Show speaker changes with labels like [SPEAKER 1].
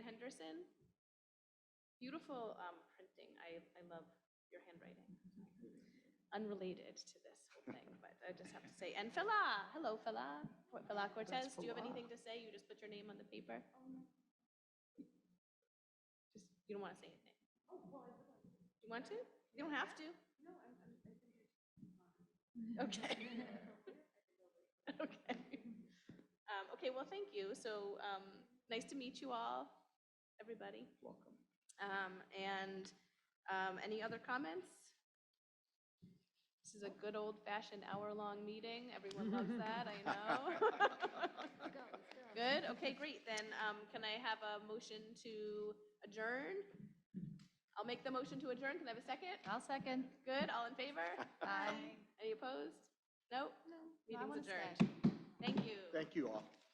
[SPEAKER 1] Anderson. Beautiful um, printing. I, I love your handwriting. Unrelated to this whole thing, but I just have to say, and Fela, hello Fela, Cor- Fela Cortez, do you have
[SPEAKER 2] Fela.
[SPEAKER 1] anything to say? You just put your name on the paper? Just, you don't want to say anything? You want to? You don't have to. Okay. Okay. Um, Okay, well, thank you. So um, nice to meet you all, everybody.
[SPEAKER 2] Welcome.
[SPEAKER 1] Um, And um, any other comments? This is a good old-fashioned hour-long meeting. Everyone loves that, I know. Good, okay, great. Then um, can I have a motion to adjourn? I'll make the motion to adjourn. Can I have a second?
[SPEAKER 3] I'll second.
[SPEAKER 1] Good, all in favor?
[SPEAKER 3] Aye.
[SPEAKER 1] Any opposed? Nope?
[SPEAKER 3] No, I
[SPEAKER 1] Meeting's
[SPEAKER 3] wanna stay.
[SPEAKER 1] adjourned. Thank you.
[SPEAKER 2] Thank you all.